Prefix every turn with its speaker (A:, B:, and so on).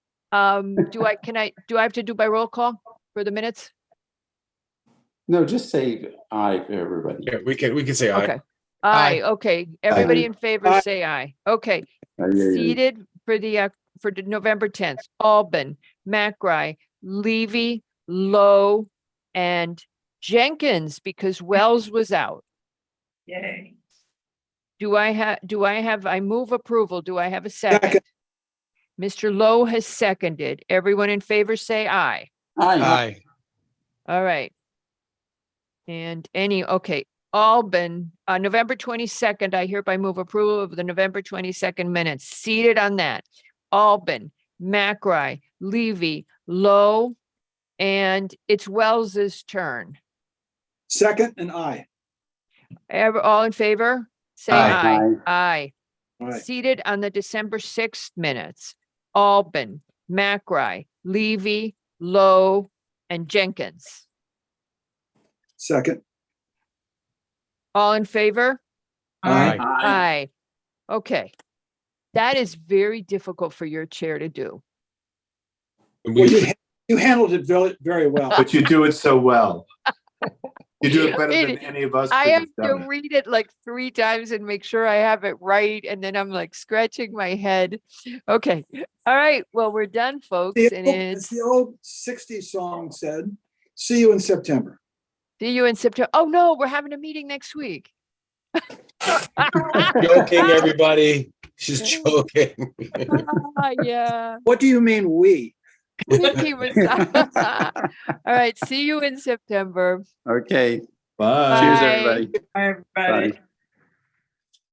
A: Um, do I, can I, do I have to do by roll call for the minutes?
B: No, just say aye for everybody.
C: Yeah, we can, we can say aye.
A: Okay. Aye, okay. Everybody
B: Aye.
A: in favor, say aye. Okay.
B: Aye, aye, aye.
A: Seated for the, uh, for the November tenth, Alban, McRae, Levy, Lowe, and Jenkins, because Wells was out.
D: Yay.
A: Do I have, do I have, I move approval. Do I have a second? Mr. Lowe has seconded. Everyone in favor, say aye.
B: Aye.
A: All right. And any, okay, Alban, uh, November twenty-second, I hereby move approval of the November twenty-second minutes. Seated on that, Alban, McRae, Levy, Lowe, and it's Wells's turn.
E: Second and I.
A: Ever, all in favor? Say aye.
B: Aye.
A: Aye.
E: All right.
A: Seated on the December sixth minutes, Alban, McRae, Levy, Lowe, and Jenkins.
E: Second.
A: All in favor?
C: Aye.
B: Aye.
A: Aye. Okay. That is very difficult for your chair to do.
C: And
E: Well, you,
C: we-
E: ha- you handled it very, very well.
F: But you do it so well. You do it better than
A: It-
F: any of us.
A: I
F: could
A: have to
F: done it.
A: read it like three times and make sure I have it right. And then I'm like scratching my head. Okay. All right. Well, we're done, folks.
E: The
A: And
E: old- As
A: it's,
E: the old sixties song said, see you in September.
A: see you in September. Oh, no, we're having a meeting next week.
C: Joking, everybody. She's joking.
A: Ah, Yeah.
E: What do you mean, we?
A: Mickey was- All right. See you in September.
B: Okay,
F: Bye.
B: cheers,
A: Aye.
B: everybody.
D: Bye, everybody.
B: Bye.